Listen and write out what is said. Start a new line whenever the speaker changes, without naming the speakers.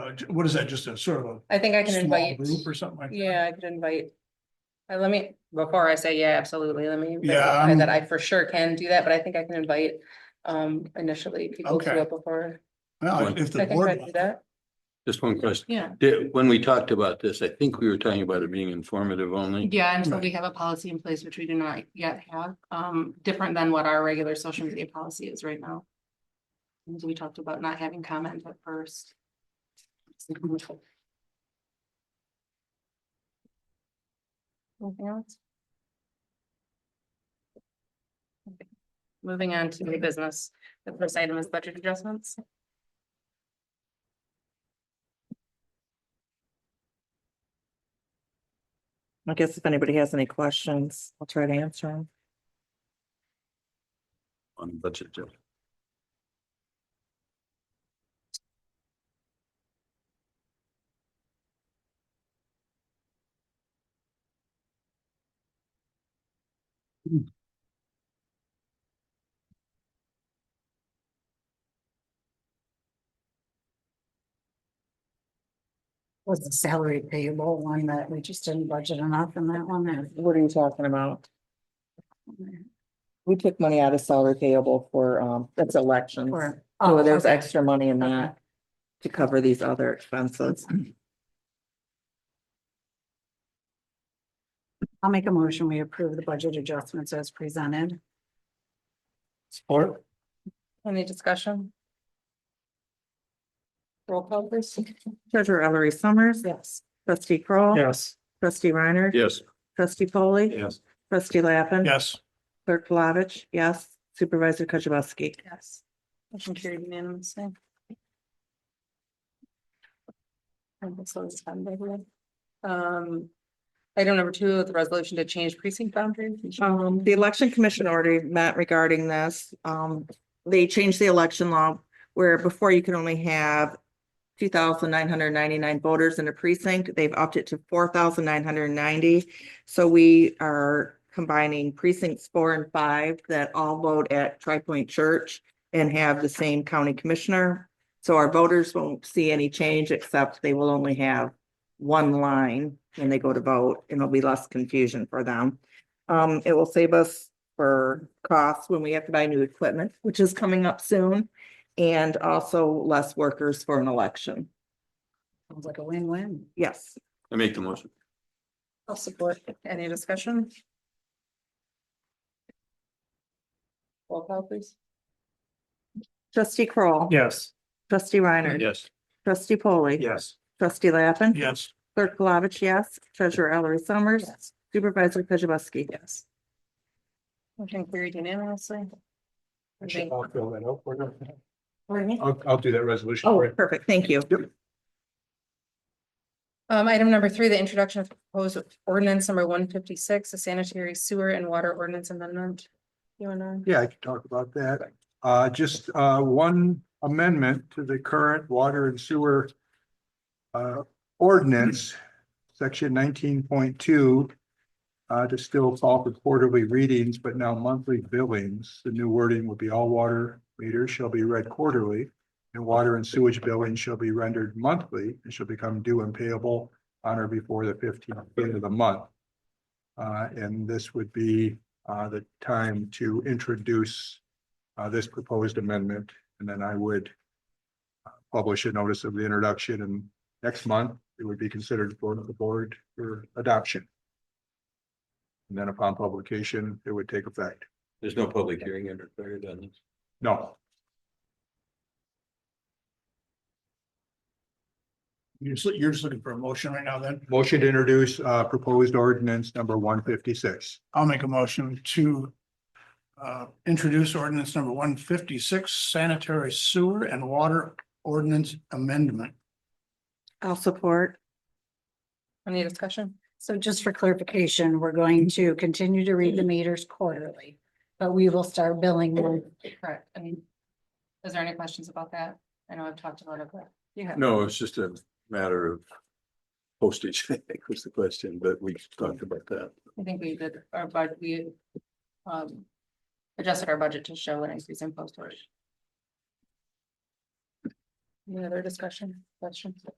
uh, j- what is that, just a sort of
I think I
a
can
small
invite,
group or something like? that?
yeah, I could invite. uh, let me, before I say, yeah, absolutely, let me.
Yeah,
verify That
I'm-
I for sure can do that, but I think I can invite um initially people to
Okay.
it before.
Well, if
I
the
can try
board,
to do that,
Just one question.
Yeah,
Did- when we talked about this, I think we were talking about it being informative only.
yeah, until
Right.
we have a policy in place, which we do not yet have, um, different than what our regular social media policy is right now. And we talked about not having comment at first.
anything else? Okay. Moving on to new business, the first item is budget adjustments.
I guess if anybody has any questions, I'll try to answer them.
On budget. Jeff.
Was the salary payable one that we just didn't budget enough in that one or?
What are you talking about? We took money out of salary payable for, um, that's elections.
or- oh,
So there's
okay.
extra money in
Okay.
that to cover these other expenses.
I'll make a motion. We approve the budget adjustments as presented.
support,
Any discussion? Roll call please.
Treasurer Ellery Summers.
Yes.
Trustee Kroll,
yes,
Trustee Reiner.
Yes.
Trustee Polly.
Yes.
Trustee Lappin.
yes,
Clerk Flavich, yes. Supervisor Kujabaski.
Yes. Motion carried unanimously. And this one's done, by the way. Um, item number two, the resolution to change precinct boundaries.
Um, the election commission already met regarding this. Um, they changed the election law where before you could only have two thousand nine hundred ninety-nine voters in a precinct. They've upped it to four thousand nine hundred ninety. So we are combining precincts four and five that all vote at Tri Point Church and have the same county commissioner. So our voters won't see any change except they will only have one line when they go to vote and there'll be less confusion for them. Um, it will save us for costs when we have to buy new equipment, which is coming up soon. And also less workers for an election.
Sounds like a win-win.
Yes.
I make the motion.
I'll support. Any discussion? Roll call please.
Trustee Kroll,
yes,
Trustee Reiner.
Yes.
Trustee Polly.
yes,
Trustee Lappin.
yes,
Clerk Palovich, yes. Treasurer Ellery Summers. Supervisor Kujabaski.
Yes. Motion carried unanimously. Thank-
I'll fill that out for you.
Pardon me?
I'll, I'll do that resolution.
Oh,
for you.
perfect. Thank you.
Um, item number three, the introduction of proposed ordinance number one fifty-six, a sanitary sewer and water ordinance amendment. You wanna?
Yeah, I can talk about that. Uh, just, uh, one amendment to the current water and sewer uh, ordinance, section nineteen point two, uh, to still call for quarterly readings, but now monthly billings. The new wording will be all water meters shall be read quarterly, and water and sewage billing shall be rendered monthly and shall become due and payable on or before the fifteenth day of the month. Uh, and this would be uh, the time to introduce uh, this proposed amendment, and then I would uh, publish a notice of the introduction, and next month, it would be considered for the board for adoption. And then upon publication, it would take effect.
There's no public hearing under there, done this.
No,
you're just, you're just looking for a motion right now then,
motion to introduce uh, proposed ordinance number one fifty-six.
I'll make a motion to. Uh, introduce ordinance number one fifty-six sanitary sewer and water ordinance amendment.
I'll support.
Any discussion?
So just for clarification, we're going to continue to read the meters quarterly, but we will start billing them.
Correct, and is there any questions about that? I know I've talked about it, but you have.
No, it's just a matter of postage, I think was the question, but we talked about that.
I think we did our budget, we um adjusted our budget to show an increase in post storage.
Any other discussion, questions?